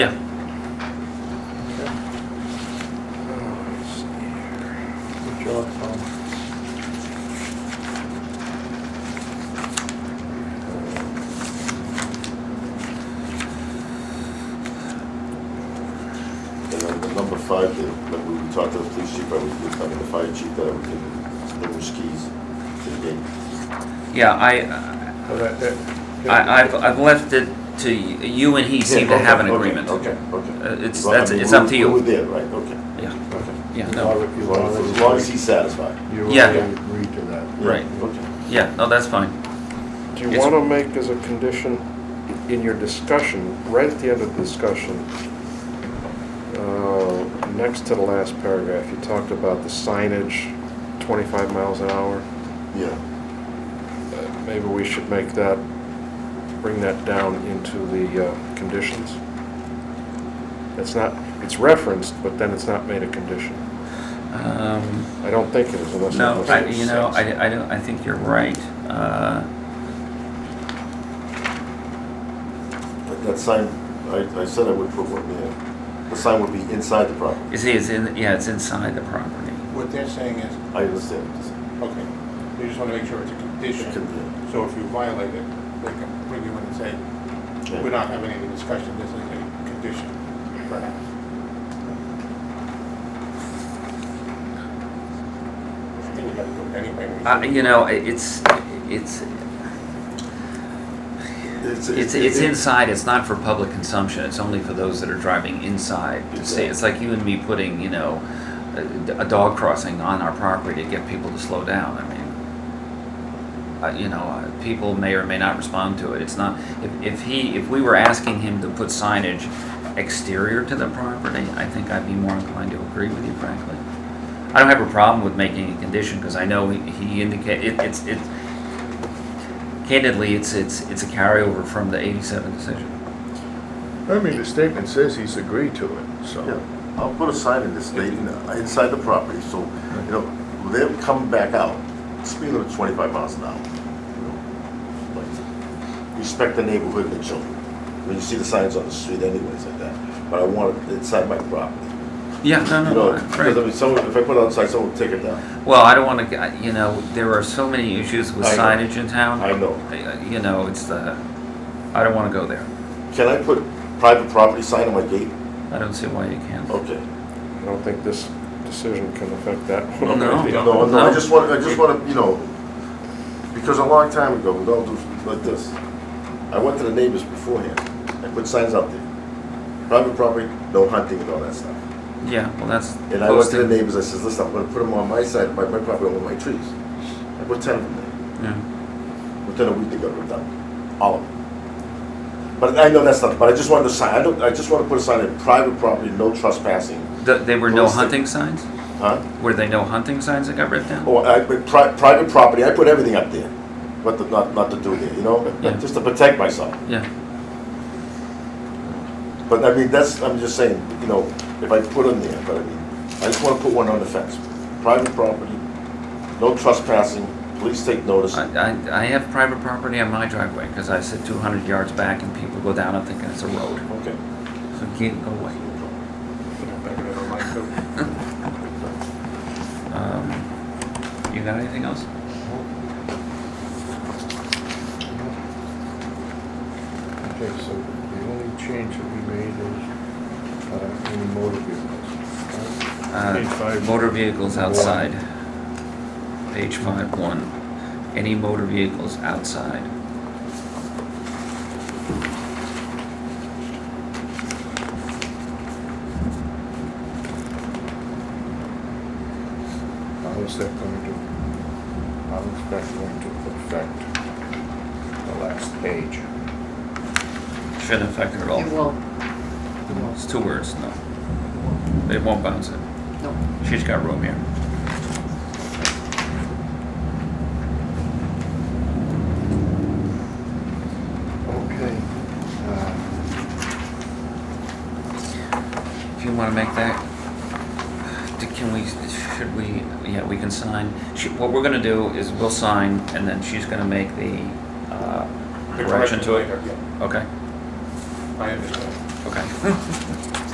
And then the number five, the- remember we talked to the police chief, I was, we talking to the fire chief, that we can bring the skis to the gate. Yeah, I, So that- that- I, I've, I've left it to, y- you and he seem to have an Okay, okay, agreement. Okay, okay. Uh, it's- Well, I that's- mean, it's up we- to you. We were there, right, okay, Yeah, okay. yeah, As no, long as- As long as, as long as he's satisfied. You Yeah. already agreed to that. Yeah, Right. Okay. yeah, no, that's fine. Do you Yes. want to make as a condition in your discussion, right at the end of the discussion, uh, next to the last paragraph, you talked about the signage, 25 miles an hour. Yeah, Uh, Maybe we should make that, bring that down into the uh, conditions. It's not, it's referenced, but then it's not made a condition. Um, I don't think it is unless. No, unless I- it's- you know, I, I don't, I think you're right. Uh, But that sign, I, I said I would put one there. The sign would be inside the property. You see, it's in, yeah, it's inside the property. What they're saying is, I understand. okay, they just want to make sure it's a condition. It could be. So if you violate it, they can bring you in and say, Okay. we're not having any discussion, this is a condition. perhaps." I think we gotta do it anyway. We Uh, should- you know, i- it's, it's, it's, it's inside, it's not for public consumption, it's only for those that are driving inside to see. It's like you and me putting, you know, a- a dog crossing on our property to get people to slow down, I mean. Uh, you know, uh, people may or may not respond to it, it's not, if, if he, if we were asking him to put signage exterior to the property, I think I'd be more inclined to agree with you frankly. I don't have a problem with making a condition, because I know he- he indicated, it, it's, it's, Candidly, it's, it's, it's a carryover from the 87 decision. I mean, the statement says he's agreed to it, Yeah, so. I'll put a sign in this, stating, uh, inside the property, so, you know, when they're coming back out, speed limit twenty-five miles an hour. you know, like, Respect the neighborhood and the children. I mean, you see the signs on the street anyways like that, but I want it inside my property. Yeah, no, You no, know, right. because I mean, someone, if I put it outside, someone will take it down. Well, I don't want to, you know, there are so many issues with I know. signage in town. I know. Uh, You know, it's the, I don't want to go there. Can I put private property sign on my gate? I don't see why you can't. Okay. I don't think this decision can affect that. Well, one. no. No, no, I just want, I just want to, you know, because a long time ago, we all do like this. I went to the neighbors beforehand, I put signs out there. Private property, no hunting and all that stuff. Yeah, well, that's And I went to the posting. neighbors, I says, listen, I'm gonna put them on my side, my, my property, on my trees. I put ten of them Yeah. there, within a week they got ripped out, all of them. But I know that's not, but I just wanted to sign, I don't, I just want to put a sign in private property, no trespassing, Th- They were no Posting. hunting signs? huh? Were they no hunting signs that got ripped down? Oh, I, but pri- private property, I put everything up there, but the- not, not to do there, you know? Yeah. Just to protect myself. Yeah, But I mean, that's, I'm just saying, you know, if I put them there, but I mean, I just wanna put one on the fence. Private property, no trespassing, police take notice. I, I- I have private property on my driveway, because I sit 200 yards back and people go down and thinking it's a road. Okay. So can't go away. I don't like to- Um, You got anything else? Okay, so the only change that we made is, uh, any motor vehicles. Uh, Page five. Motor vehicles One. outside. Page five, one. Any motor vehicles outside. How is that going to, how is that going to affect the last page? Shouldn't affect it at It all. will. It will. It's two words, no. They won't bounce it. No. She's got room here. Okay. uh, If you wanna make that, d- can we, should we, yeah, we can sign. She, what we're gonna do is we'll sign and then she's gonna make the, uh, The correction to it. later, yeah, Okay, I understand. okay.